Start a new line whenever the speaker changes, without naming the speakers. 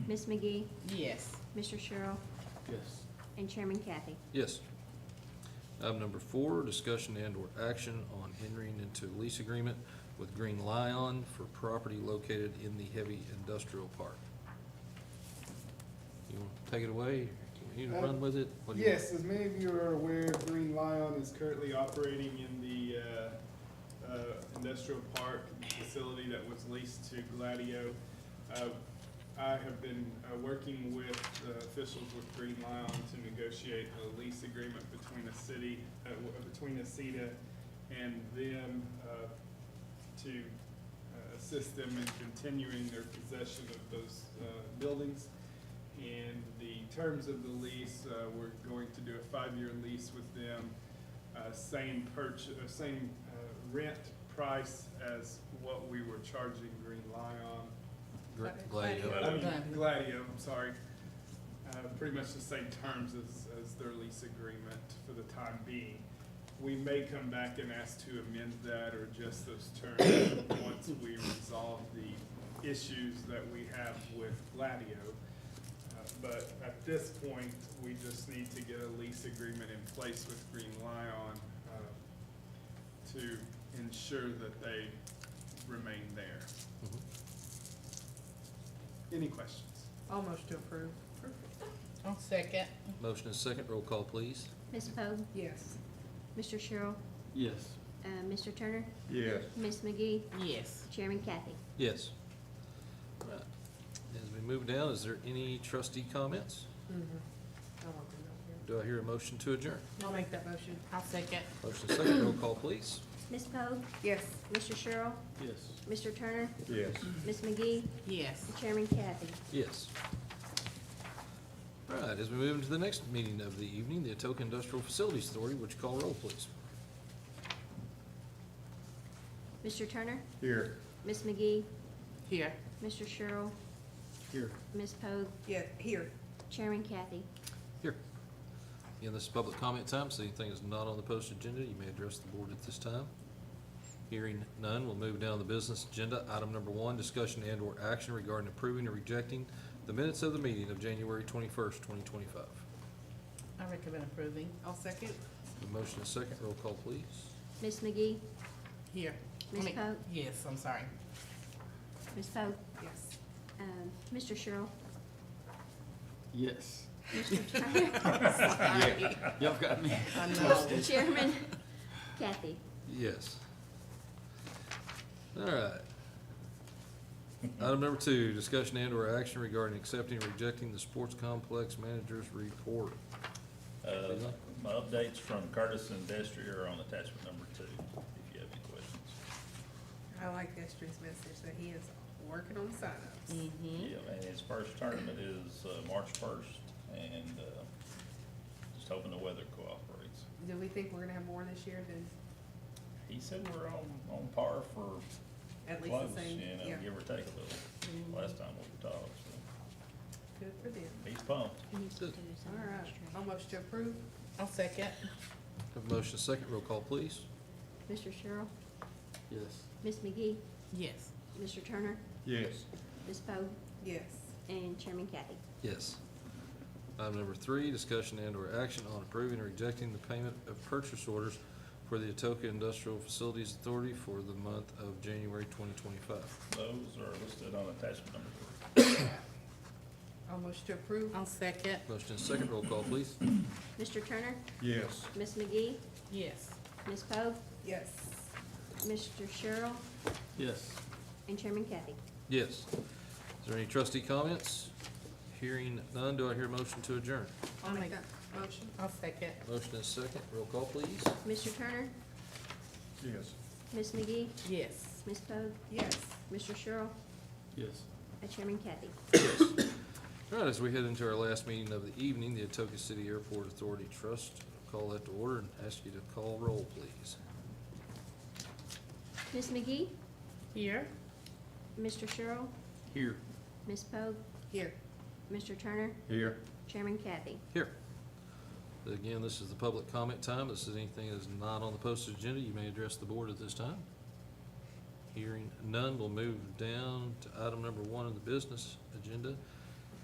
Ms. McGee,
Yes.
Mr. Sherrill,
Yes.
and Chairman Kathy.
Yes. Item number four, discussion and/or action on entering into a lease agreement with Green Lion for property located in the heavy industrial park. You want to take it away? You want to run with it? What do you want?
Yes, as many of you are aware, Green Lion is currently operating in the uh, uh, industrial park facility that was leased to Gladio. Uh, I have been uh, working with uh, officials with Green Lion to negotiate a lease agreement between the city, uh, w- between Aceda and them uh, to uh, assist them in continuing their possession of those uh, buildings. And the terms of the lease, uh, we're going to do a five-year lease with them, uh, same purch, uh, same, uh, rent price as what we were charging Green Lion.
Gra-
I
Gladio.
mean,
Gladio.
Gladio, I'm sorry. Uh, pretty much the same terms as, as their lease agreement for the time being. We may come back and ask to amend that or adjust those terms once we resolve the issues that we have with Gladio. Uh, But at this point, we just need to get a lease agreement in place with Green Lion, uh, to ensure that they remain there.
Mhm.
Any questions?
Almost to approve.
I'll second.
Motion is second, roll call, please.
Ms. Pogue,
Yes.
Mr. Sherrill,
Yes.
uh, Mr. Turner,
Yes.
Ms. McGee,
Yes.
Chairman Kathy.
Yes. All right. As we move down, is there any trustee comments?
I won't do that
Do I hear a motion to adjourn?
here. I'll make that motion.
I'll second.
Motion is second, roll call, please.
Ms. Pogue,
Yes.
Mr. Sherrill,
Yes.
Mr. Turner,
Yes.
Ms. McGee,
Yes.
and Chairman Kathy.
Yes. All right, as we move into the next meeting of the evening, the Atoka Industrial Facilities Authority, would you call roll, please?
Mr. Turner,
Here.
Ms. McGee,
Here.
Mr. Sherrill,
Here.
Ms. Pogue,
Yeah, here.
Chairman Kathy.
Here. Again, this is public comment time, so anything that's not on the posted agenda, you may address the board at this time. Hearing none, we'll move down to the business agenda. Item number one, discussion and/or action regarding approving or rejecting the minutes of the meeting of January twenty-first, twenty twenty-five.
I recommend approving. I'll second.
Motion is second, roll call, please.
Ms. McGee,
Here.
Ms.
I mean,
Pogue?
Yes, I'm sorry.
Ms. Pogue,
Yes.
um, Mr. Sherrill,
Yes.
Mr. Turner,
Sorry.
Y'all got me.
I know.
Chairman Kathy.
Yes. All right. Item number two, discussion and/or action regarding accepting or rejecting the sports complex manager's report.
Uh, My updates from Curtis and Destry are on attachment number two, if you have any questions.
I like Esther's message that he is working on signups.
Mm-hmm.
Yeah, and his first tournament is uh, March first, and uh, just hoping the weather cooperates.
Do we think we're gonna have more this year than
He said we're on, on par for
at least
close,
the same?
you know,
Yeah, Hmm.
give or take a little, last time we talked, so
good for them.
he's pumped.
You need to do
All
something
right,
extra.
almost to approve.
I'll second.
Have a motion second, roll call, please.
Mr. Sherrill,
Yes.
Ms. McGee,
Yes.
Mr. Turner,
Yes.
Ms. Pogue,
Yes.
and Chairman Kathy.
Yes. Item number three, discussion and/or action on approving or rejecting the payment of purchase orders for the Atoka Industrial Facilities Authority for the month of January twenty twenty-five.
Those are listed on attachment number three.
Almost to approve.
I'll second.
Motion second, roll call, please.
Mr. Turner,
Yes.
Ms. McGee,
Yes.
Ms. Pogue,
Yes.
Mr. Sherrill,
Yes.
and Chairman Kathy.
Yes. Is there any trustee comments? Hearing none, do I hear a motion to adjourn?
I'll
I'll
make
make-
that motion.
I'll second.
Motion is second, roll call please.
Mr. Turner,
Yes.
Ms. McGee,
Yes.
Ms. Pogue,
Yes.
Mr. Sherrill,
Yes.
and Chairman Kathy.
All right, as we head into our last meeting of the evening, the Atoka City Airport Authority Trust, call that to order and ask you to call roll please.
Ms. McGee,
Here.
Mr. Sherrill,
Here.
Ms. Pogue,
Here.
Mr. Turner,
Here.
Chairman Kathy.
Here. Again, this is the public comment time. This is anything that's not on the posted agenda. You may address the board at this time. Hearing none, we'll move down to item number one on the business agenda,